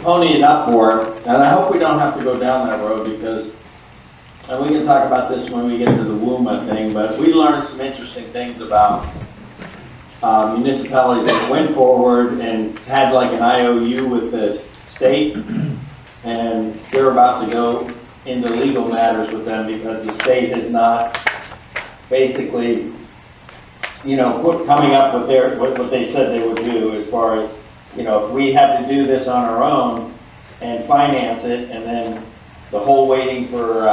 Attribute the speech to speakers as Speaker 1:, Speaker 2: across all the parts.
Speaker 1: pony it up for it, and I hope we don't have to go down that road because, and we can talk about this when we get to the WUMA thing, but we learned some interesting things about uh, municipalities that went forward and had like an IOU with the state, and they're about to go into legal matters with them because the state has not basically, you know, put- coming up with their, what what they said they would do as far as you know, if we had to do this on our own and finance it, and then the whole waiting for, uh,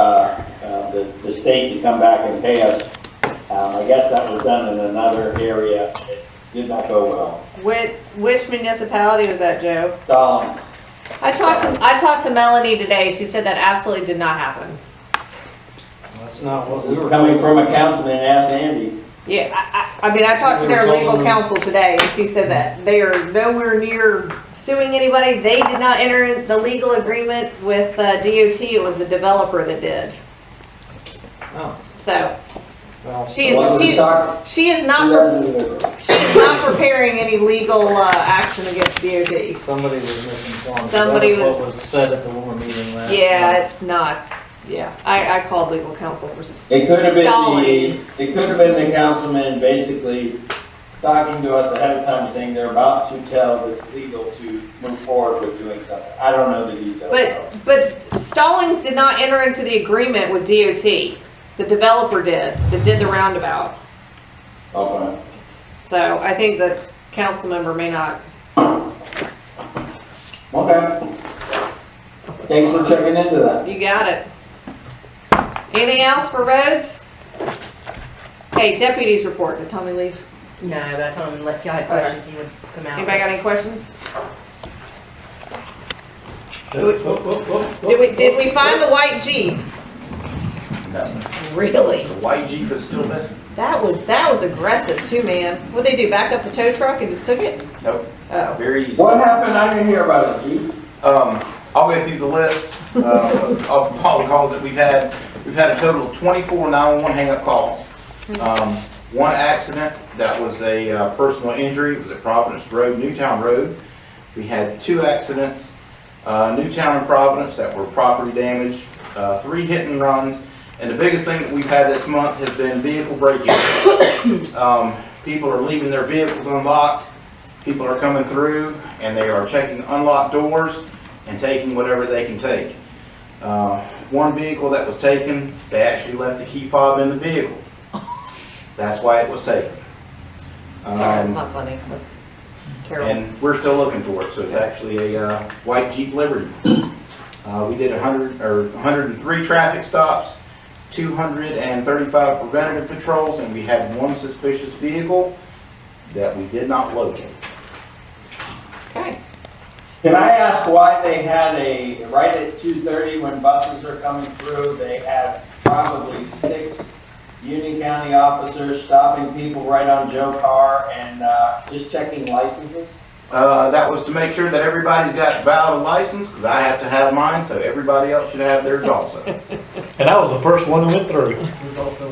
Speaker 1: uh, the, the state to come back and pay us, um, I guess that was done in another area, it did not go well.
Speaker 2: Which, which municipality was that, Joe?
Speaker 1: Dollars,
Speaker 2: I talked to, I talked to Melanie today, she said that absolutely did not happen.
Speaker 3: That's not what we
Speaker 1: this
Speaker 3: were.
Speaker 1: is coming
Speaker 3: told.
Speaker 1: from a councilman, ask Andy.
Speaker 2: Yeah, I, I, I mean, I talked to their legal counsel today, and she said that they are nowhere near suing anybody. They did not enter the legal agreement with uh, DOT, it was the developer that did.
Speaker 3: Oh,
Speaker 2: So,
Speaker 3: well,
Speaker 2: she is,
Speaker 1: Well, we
Speaker 2: she,
Speaker 1: talked-
Speaker 2: she is
Speaker 1: we
Speaker 2: not,
Speaker 1: left it in there.
Speaker 2: she is not preparing any legal, uh, action against DOT.
Speaker 3: Somebody was misinformed.
Speaker 2: Somebody
Speaker 3: That What
Speaker 2: was-
Speaker 3: was said at the woman meeting last.
Speaker 2: Yeah,
Speaker 3: night.
Speaker 2: it's not, yeah, I, I called legal counsel for, s-
Speaker 1: It could have been
Speaker 2: Dollars.
Speaker 1: the, it could have been the councilman basically talking to us ahead of time, saying they're about to tell the legal to move forward with doing something. I don't know the details. though.
Speaker 2: but, but Stallings did not enter into the agreement with DOT. The developer did, that did the roundabout.
Speaker 1: Okay.
Speaker 2: So I think the council member may not.
Speaker 1: Okay. Thanks for checking into that.
Speaker 2: You got it. Anything else for roads? Okay, deputies report. Did Tommy leave?
Speaker 4: No, but I told him if y'all had questions, he would come out.
Speaker 2: Anybody got any questions?
Speaker 3: Whoop, whoop, whoop, whoop,
Speaker 2: Did we, did we
Speaker 3: whoop.
Speaker 2: find the white Jeep?
Speaker 5: No,
Speaker 2: Really?
Speaker 5: the white Jeep is still missing.
Speaker 2: That was, that was aggressive too, man. What'd they do, back up the tow truck and just took it?
Speaker 5: Nope,
Speaker 2: Oh,
Speaker 5: very easy.
Speaker 1: What happened? I didn't hear about it, Keith.
Speaker 5: Um, I'll go through the list, um, of all the calls that we've had. We've had a total of twenty-four nine-one-one hang-up calls. Um, one accident, that was a uh, personal injury, it was at Providence Road, Newtown Road. We had two accidents, uh, Newtown and Providence that were property damage, uh, three hit and runs. And the biggest thing that we've had this month has been vehicle breaking. Um, people are leaving their vehicles unlocked, people are coming through and they are checking unlocked doors and taking whatever they can take. Uh, One vehicle that was taken, they actually left the key fob in the vehicle. That's why it was taken.
Speaker 2: sorry, that's
Speaker 5: Um,
Speaker 2: not funny. That's terrible.
Speaker 5: And we're still looking for it, so it's actually a uh, white Jeep Liberty. Uh, We did 100, or 103 traffic stops, 235 preventative patrols, and we had one suspicious vehicle that we did not locate.
Speaker 2: Okay.
Speaker 1: Can I ask why they had a, right at two thirty when buses are coming through, they had probably six Union County officers stopping people right on Joe Carr and, uh, just checking licenses?
Speaker 5: Uh, that was to make sure that everybody's got valid license, because I have to have mine, so everybody else should have theirs also.
Speaker 6: And I was the first one who went through.
Speaker 3: There's also-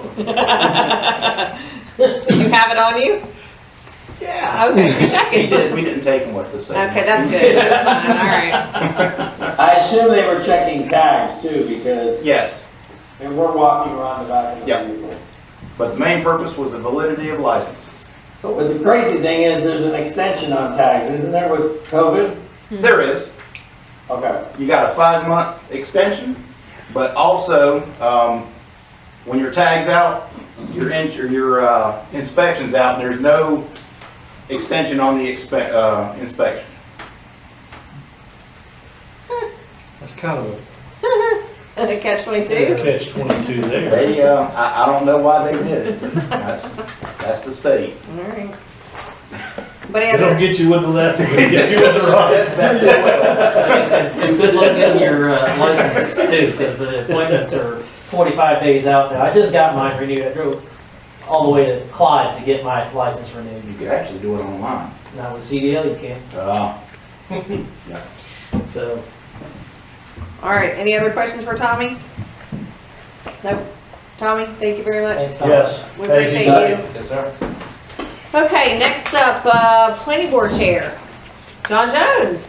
Speaker 2: You have it on you?
Speaker 5: Yeah.
Speaker 2: Okay,
Speaker 6: Hmm.
Speaker 2: just
Speaker 5: We
Speaker 2: checking.
Speaker 5: did, we didn't take them with us. so-
Speaker 2: Okay, that's good. That's fine, all right.
Speaker 1: I assume they were checking tags too, because
Speaker 5: Yes,
Speaker 1: they were walking around the back of the
Speaker 5: Yep.
Speaker 1: vehicle.
Speaker 5: but the main purpose was the validity of licenses.
Speaker 1: But the crazy thing is, there's an extension on tags, isn't there, with COVID?
Speaker 2: Hmm.
Speaker 5: There is,
Speaker 1: Okay.
Speaker 5: you got a five-month extension, but also, um, when your tag's out, your in, your- your, uh, inspection's out, and there's no extension on the expe, uh, inspection.
Speaker 3: That's kind of a
Speaker 2: Catch twenty-two?
Speaker 6: Catch 22 there.
Speaker 5: They, uh, I, I don't know why they did it. That's, that's the state.
Speaker 2: Alright. But
Speaker 6: They don't
Speaker 2: Andrew,
Speaker 6: get you with the left, they get you with the right.
Speaker 5: That- that-
Speaker 3: And good luck getting your uh, license too, because the appointments are forty-five days out now. I just got mine renewed. I drove all the way to Clyde to get my license renewed.
Speaker 5: You could actually do it online.
Speaker 3: Now with CDL, you can,
Speaker 5: Uh,
Speaker 3: not so.
Speaker 2: alright, any other questions for Tommy? Nope. Tommy, thank you very much.
Speaker 3: thanks, Tom.
Speaker 6: Yes.
Speaker 2: We
Speaker 6: Thank
Speaker 2: appreciate
Speaker 6: sir.
Speaker 2: you.
Speaker 5: Yes, sir.
Speaker 2: Okay, next up, uh, planning board chair, John Jones.